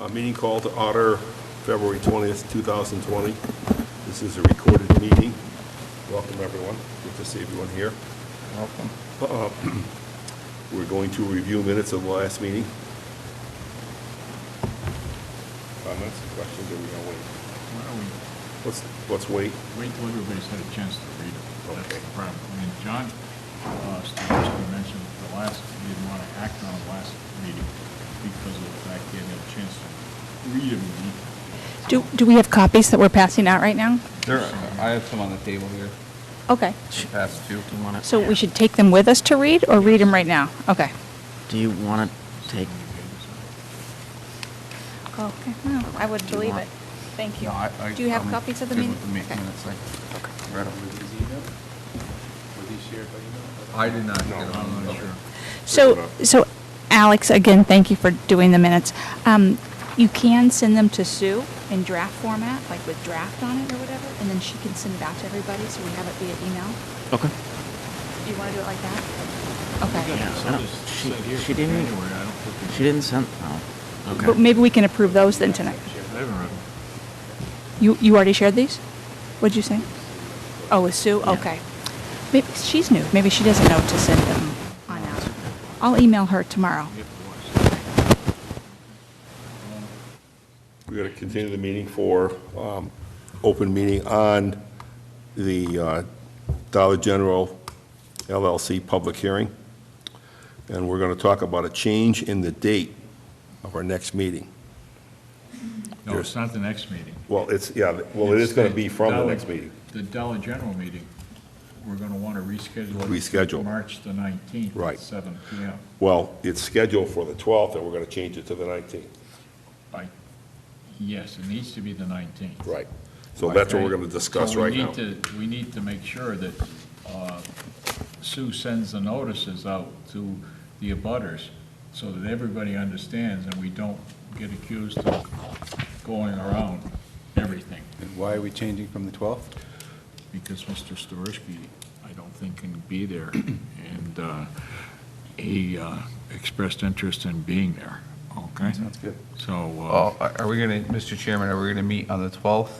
A meeting called to order, February 20th, 2020. This is a recorded meeting. Welcome, everyone. Good to see everyone here. Welcome. We're going to review minutes of the last meeting. Comments, questions, or we gonna wait? Why don't we Let's, let's wait. wait till everybody's had a chance to read it? That's Okay. the problem. I mean, John, uh, Stavisky mentioned the last, he didn't want to act on the last meeting because of the fact he hadn't had a chance to read it. Do, do we have copies that we're passing out right now? There, I have some on the table here. Okay. Pass two. So we should take them with us to read or read them right now? Okay. Do you want to take, Okay, no, I would Do you believe want- it. Thank you. No, I- I- Do you have I'm copies of the good meeting? with the Okay. mi- minutes, I read 'em. I did not No, get them. I'm not Okay. sure. So, so Alex, again, thank you for doing the minutes. Um, you can send them to Sue in draft format, like with draft on it or whatever, and then she can send it out to everybody so we have it via email. okay. Do you want to do it like that? Okay. Yeah, I So don't- this she- said here for she didn't- January, I don't think. She didn't send, oh. But maybe we can approve those then tonight. I haven't read them. You, you already shared these? What'd you say? Oh, with Sue? Yeah. Okay. Maybe she's new. Maybe she doesn't know to send them on out. I'll email her tomorrow. You have to watch. We're going to continue the meeting for um, open meeting on the uh, Dollar General LLC public hearing. And we're going to talk about a change in the date of our next meeting. No, it's not the next meeting. Well, it's, yeah, well, it is It's going to the be from the Dollar- next meeting. The Dollar General meeting, we're going to want to reschedule. it to Reschedule. March the 19th. Right. At 7 PM. Well, it's scheduled for the 12th, and we're going to change it to the 19th. By, yes, it needs to be the 19th. Right. So that's what we're going to discuss So we right now. need to- We need to make sure that uh, Sue sends the notices out to the abutters so that everybody understands and we don't get accused of going around everything. And why are we changing from the 12th? because Mr. Storisky, I don't think can be there, and uh, he uh, expressed interest in being there, okay? Sounds good. So. uh, Well, are are we going to, Mr. Chairman, are we going to meet on the 12th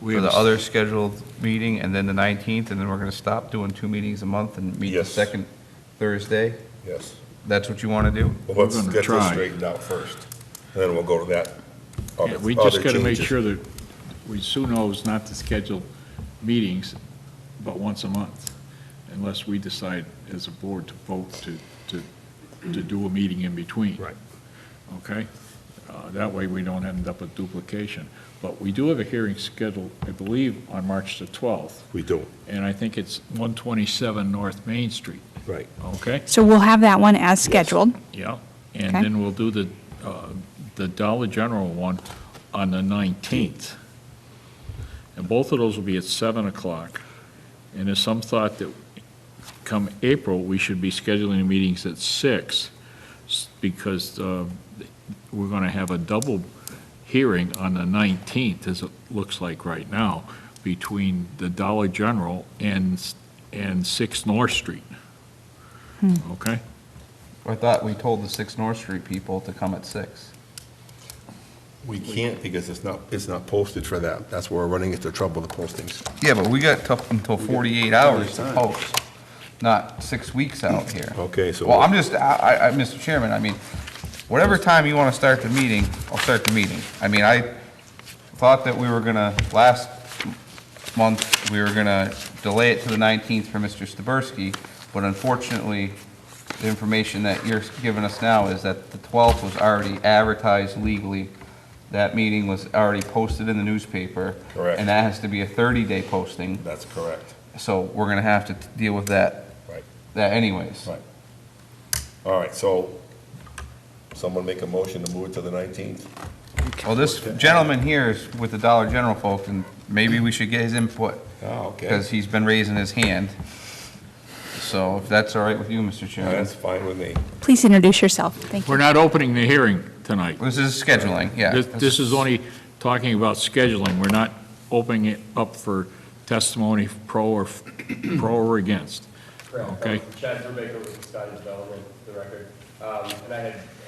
we for have the a- other scheduled meeting, and then the 19th, and then we're going to stop doing two meetings a month and meet the Yes. second Thursday? Yes. That's what you want to do? Well, let's We're gonna get this try. straightened out first, and then we'll go to that. Yeah, other- We just other got to make changes. sure that, we, Sue knows not to schedule meetings but once a month, unless we decide as a board to vote to, to, to do a meeting in between. Right. Okay? Uh, That way, we don't end up with duplication. But we do have a hearing scheduled, I believe, on March the 12th, We do, and I think it's 127 North Main Street, right. okay? So we'll have that one as scheduled. Yeah. And Okay. then we'll do the, uh, the Dollar General one on the 19th. And both of those will be at 7 o'clock. And there's some thought that come April, we should be scheduling meetings at 6, s- because uh, we're going to have a double hearing on the 19th, as it looks like right now, between the Dollar General and, s- and 6 North Street. Okay? I thought we told the 6 North Street people to come at 6. We can't because it's not, it's not posted for that. That's where we're running into trouble with the postings. Yeah, but we got tough until 48 hours to post, not six weeks out here. Okay, so- Well, I'm just, I, I- I, Mr. Chairman, I mean, whatever time you want to start the meeting, I'll start the meeting. I mean, I thought that we were gonna, last month, we were gonna delay it to the 19th for Mr. Staberski, but unfortunately, the information that you're giving us now is that the 12th was already advertised legally. That meeting was already posted in the newspaper. Correct. And that has to be a 30-day posting, That's correct. so we're going to have to t- deal with that. Right. That anyways. Right. All right, so someone make a motion to move it to the 19th? Well, this gentleman here is with the Dollar General folks, and maybe we should get his input, Oh, because he's been raising his hand. So if that's all right with you, Mr. Chairman. That's fine with me. Please introduce yourself. Thank We're you. not opening the hearing tonight. This is scheduling, yeah. This this is only talking about scheduling. We're not opening it up for testimony pro or, pro or against. Correct. Okay. Um, Chad Brubaker was Scottish Bell, for the record. Um, And I had